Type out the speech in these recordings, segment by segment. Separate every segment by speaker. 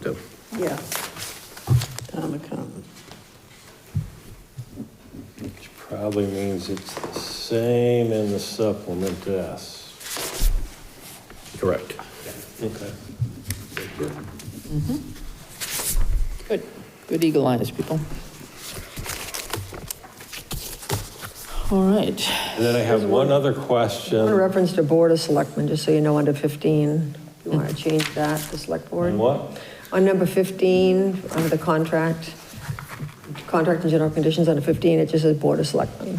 Speaker 1: do.
Speaker 2: Yeah. Tom accountant.
Speaker 3: Which probably means it's the same in the supplement S.
Speaker 1: Correct.
Speaker 3: Okay.
Speaker 4: Good, good eagle eyes, people. All right,
Speaker 3: And then I have one other
Speaker 2: I want to
Speaker 3: question.
Speaker 2: reference to Board of Selectmen, just so you know, under 15, you want to change that to Select Board.
Speaker 3: On what?
Speaker 2: On number 15, under the contract, contract and general conditions under 15, it just says Board of Selectmen.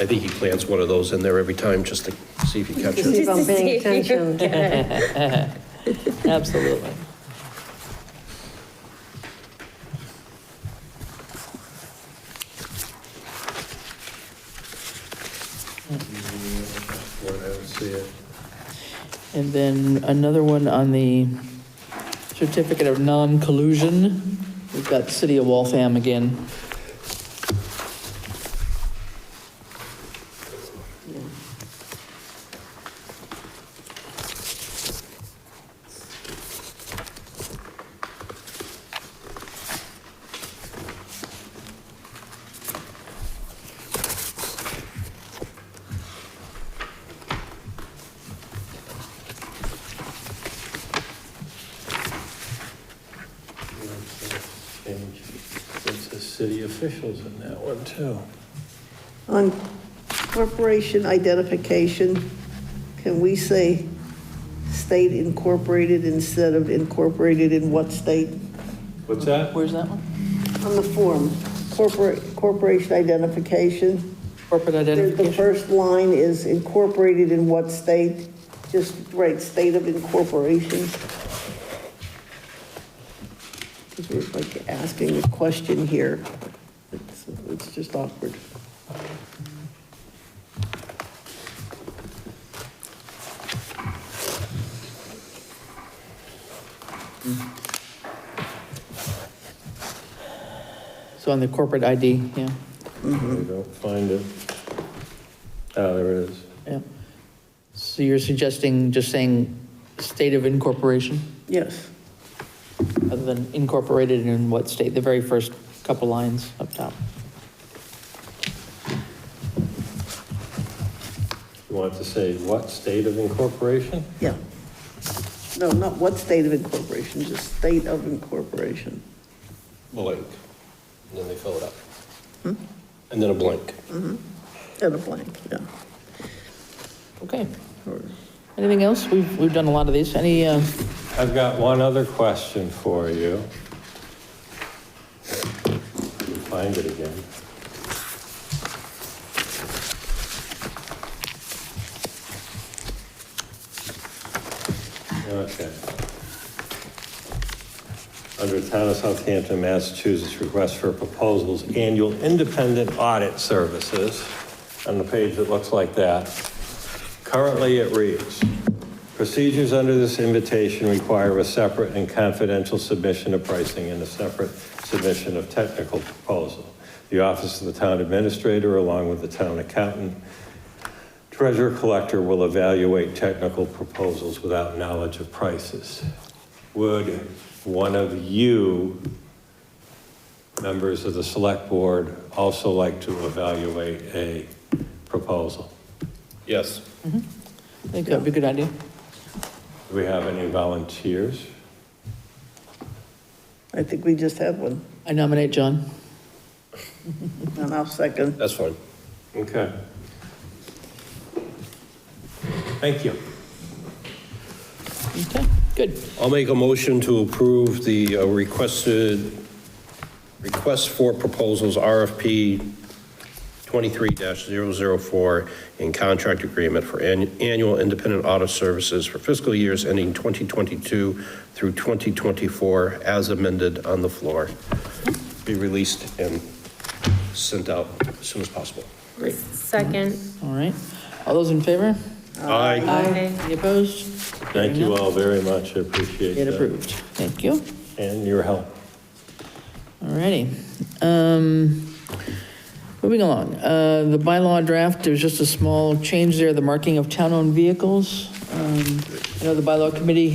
Speaker 1: I think he plants one of those in there every time just to see if he catches
Speaker 2: See
Speaker 1: it.
Speaker 2: if I'm
Speaker 5: Just to
Speaker 2: paying
Speaker 5: see if you
Speaker 2: attention.
Speaker 5: get it.
Speaker 4: absolutely.
Speaker 3: Boy, I don't see it.
Speaker 4: And then another one on the certificate of non-collusion. We've got City of Waltham again.
Speaker 3: Change. It says city officials in that one, too.
Speaker 6: On corporation identification, can we say state incorporated instead of incorporated in what state?
Speaker 3: What's that?
Speaker 4: Where's that one?
Speaker 6: On the form, corporate, corporation identification.
Speaker 4: Corporate
Speaker 6: The
Speaker 4: identification.
Speaker 6: the first line is incorporated in what state? Just write state of incorporation. Because we're like asking a question here. It's, it's just awkward.
Speaker 4: So on the corporate ID, yeah,
Speaker 3: I don't find it. Oh, there it is.
Speaker 4: yeah. So you're suggesting just saying state of incorporation,
Speaker 6: Yes.
Speaker 4: other than incorporated in what state, the very first couple lines up top.
Speaker 3: You want to say what state of incorporation?
Speaker 6: Yeah. No, not what state of incorporation, just state of incorporation.
Speaker 1: Blank. And then they fill it up. And then a blank.
Speaker 6: And a blank, yeah.
Speaker 4: Okay,
Speaker 6: Or-
Speaker 4: anything else? We've, we've done a lot of these. Any, uh,
Speaker 3: I've got one other question for you. Find it again. Okay. Under Town of Southampton, Massachusetts, request for proposals, annual independent audit services, on the page that looks like that. Currently, it reads, procedures under this invitation require a separate and confidential submission of pricing and a separate submission of technical proposal. The Office of the Town Administrator, along with the Town Accountant, Treasurer Collector will evaluate technical proposals without knowledge of prices. Would one of you, members of the Select Board, also like to evaluate a proposal?
Speaker 1: Yes.
Speaker 4: I think that'd be a good idea.
Speaker 3: Do we have any volunteers?
Speaker 6: I think we just had one,
Speaker 4: I nominate John.
Speaker 6: and I'll second.
Speaker 1: That's fine.
Speaker 3: Okay. Thank you.
Speaker 4: Okay, good.
Speaker 1: I'll make a motion to approve the uh, requested, request for proposals, RFP 23-004, and contract agreement for annu- annual independent audit services for fiscal years ending 2022 through 2024, as amended on the floor. Be released and sent out as soon as possible.
Speaker 4: Great.
Speaker 5: Second.
Speaker 4: All right. All those in favor?
Speaker 1: Aye.
Speaker 5: Aye.
Speaker 4: Any opposed?
Speaker 3: Thank you all very much, I appreciate
Speaker 4: It
Speaker 3: that.
Speaker 4: approved. Thank you.
Speaker 3: And your help.
Speaker 4: All righty. Um, Moving along, Uh, the bylaw draft, there's just a small change there, the marking of town-owned vehicles. Um, I know the bylaw committee